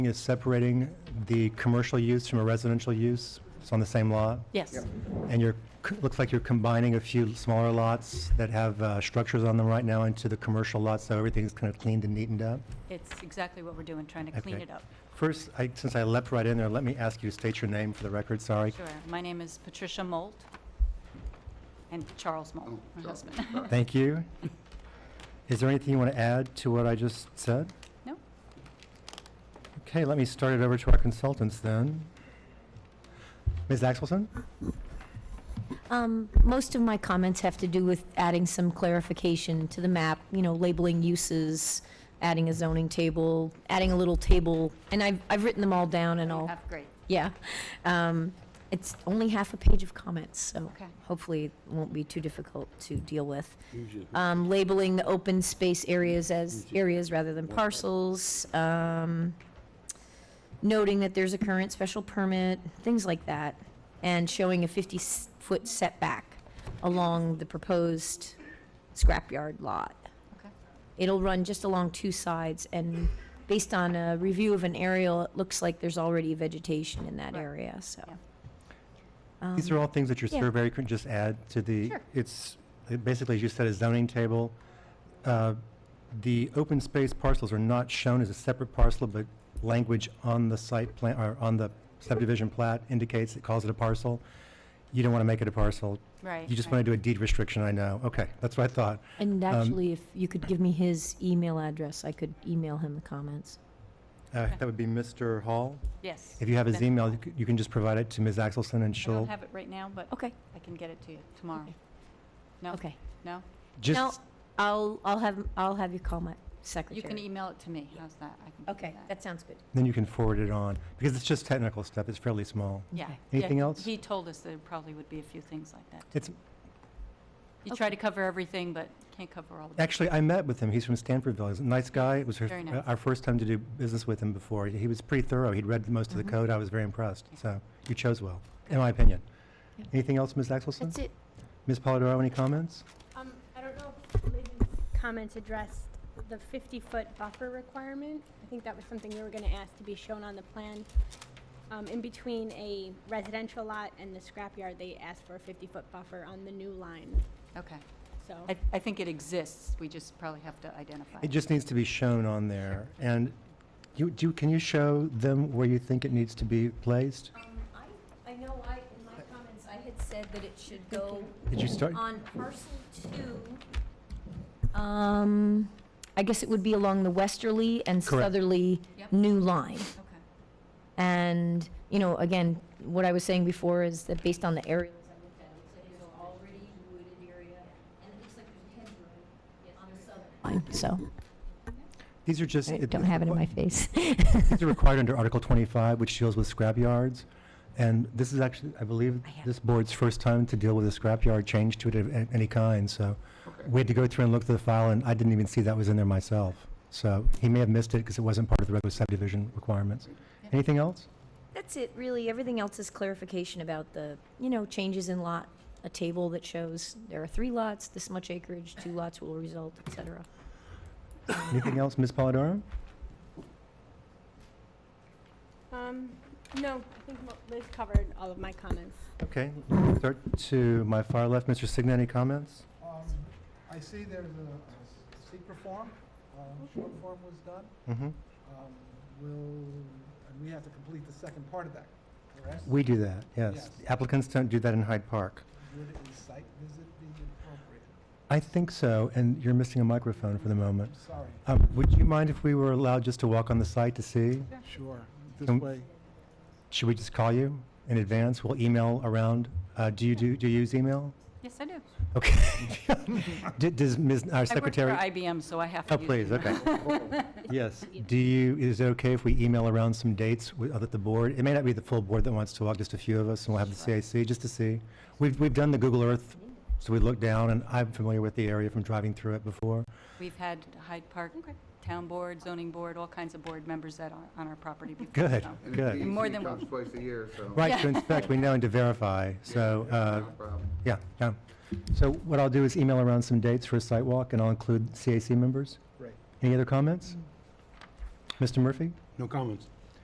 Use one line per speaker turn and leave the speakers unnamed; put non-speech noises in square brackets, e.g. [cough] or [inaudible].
is separating the commercial use from a residential use. It's on the same lot.
Yes,
And you're, c- looks like you're combining a few smaller lots that have uh, structures on them right now into the commercial lots, so everything's kind of cleaned and neatened up.
it's exactly what we're doing, trying to clean
Okay.
it up.
First, I, since I leapt right in there, let me ask you to state your name for the record, sorry.
Sure. My name is Patricia Molt, and Charles Molt, my husband.
Thank you. Is there anything you want to add to what I just said?
No?
Okay, let me start it over to our consultants then. Ms. Axelson?
Um, Most of my comments have to do with adding some clarification to the map, you know, labeling uses, adding a zoning table, adding a little table, and I've, I've written them all down [laughs] and all,
Have- Great.
yeah. Um, It's only half a page of comments, so
Okay.
hopefully it won't be too difficult to deal with. Um, Labeling the open space areas as areas rather than parcels, um, noting that there's a current special permit, things like that, and showing a 50-foot setback along the proposed scrapyard lot.
Okay.
It'll run just along two sides, and based on a review of an aerial, it looks like there's already vegetation in that
Right.
area, so.
Yeah.
These are all things that your
yeah.
surveyor could just add to the,
Sure.
it's, it basically, as you said, a zoning table. Uh, The open space parcels are not shown as a separate parcel, but language on the site plan, or on the subdivision plat indicates it calls it a parcel. You don't want to make it a parcel.
Right.
You just
right.
want to do a deed restriction, I know. Okay, that's what I thought.
And actually, if you could give me his email address, I could email him the comments.
Uh, That would be Mr. Hall.
Yes.
If you have his
Then-
email, you c- you can just provide it to Ms. Axelson and
I don't
she'll,
have it right now, but
Okay,
I can get it to you tomorrow.
Oh.
No?
Okay. okay.
No?
No,
just,
I'll, I'll have, I'll have you call my
You can
secretary.
email it to me. How's that? I can do
Okay, that sounds good.
then you can forward it on, because it's just technical stuff, it's fairly small.
Yeah.
Okay.
yeah,
Anything else?
He told us there probably would be a few things like that.
It's,
You try to cover everything, but can't cover all of it.
actually, I met with him, he's from Stanfordville, he's a nice guy. It was her-
Very nice.
our first time to do business with him before. He was pretty thorough, he'd read most of the
Mhm.
code, I was very impressed.
Yeah.
So you chose well, in my opinion.
Yeah.
Anything else, Ms. Axelson?
That's it.
Ms. Polidoro, any comments?
Um, I don't know if Lynn's comments addressed the 50-foot buffer requirement. I think that was something we were going to ask to be shown on the plan. Um, In between a residential lot and the scrapyard, they asked for a 50-foot buffer on the new line,
Okay.
so.
I, I think it exists. We just probably have to identify.
It just needs to be shown on there. And you, do, you- can you show them where you think it needs to be placed?
Um,
I know I, in my comments, I had said that it should go
Did you start?
on parcel two,
Um, I guess it would be along the westerly and
Correct.
southerly
Yep.
new line.
Okay.
And, you know, again, what I was saying before is that based on the aerials I looked at, it looks like there's already wooded area, and it looks like there's hedgerow on the southern line, so
These are just.
I
it-
don't have it in
what-
my face. [laughs]
These are required under Article 25, which deals with scrapyards. And this is actually, I believe,
I have-
this board's first time to deal with a scrapyard change to it of a- any kind, so we had to go through and look through the file, and I didn't even see that was in there myself. So he may have missed it because it wasn't part of the regular subdivision requirements. Anything else?
That's it, really. Everything else is clarification about the, you know, changes in lot, a table that shows there are three lots, this much acreage, two lots will result, et cetera.
Anything else, Ms. Polidoro?
Um, No, I think Mo- Liz covered all of my comments.
Okay, start to my far left, Mr. Signa, any comments?
Um, I see there's a secret form, um, short form was done.
Mm-hmm.
Um, Will, and we have to complete the second part of that, correct?
We do that, yes.
Yes.
Applicants don't do that in Hyde Park.
Would a site visit be appropriate?
I think so, and you're missing a microphone for the moment.
I'm sorry.
Um, Would you mind if we were allowed just to walk on the site to see?
Sure, this
Um,
way,
Should we just call you in advance? We'll email around. Uh, Do you do, do you use email?
Yes, I do.
Okay. [laughs] D- Does Ms., our secretary?
I work for IBM, so I have to
Oh,
use
please,
email. [laughs]
okay. Yes. Do you, is it okay if we email around some dates with- that the board, it may not be the full board that wants to walk, just a few of us, and we'll have the CAC, just to see? We've, we've done the Google Earth, so we look down, and I'm familiar with the area from driving through it before.
We've had Hyde Park Town Board, Zoning Board, all kinds of board members that are on our
[laughs]
property before.
Good,
so-
And
good.
the
More
DEC
than
comes
one.
twice a year, so.
Right to inspect, we know, and to verify, so. uh,
No problem.
Yeah, yeah. So what I'll do is email around some dates for a site walk, and I'll include CAC members.
great.
Any other comments? Mr. Murphy?
No comments.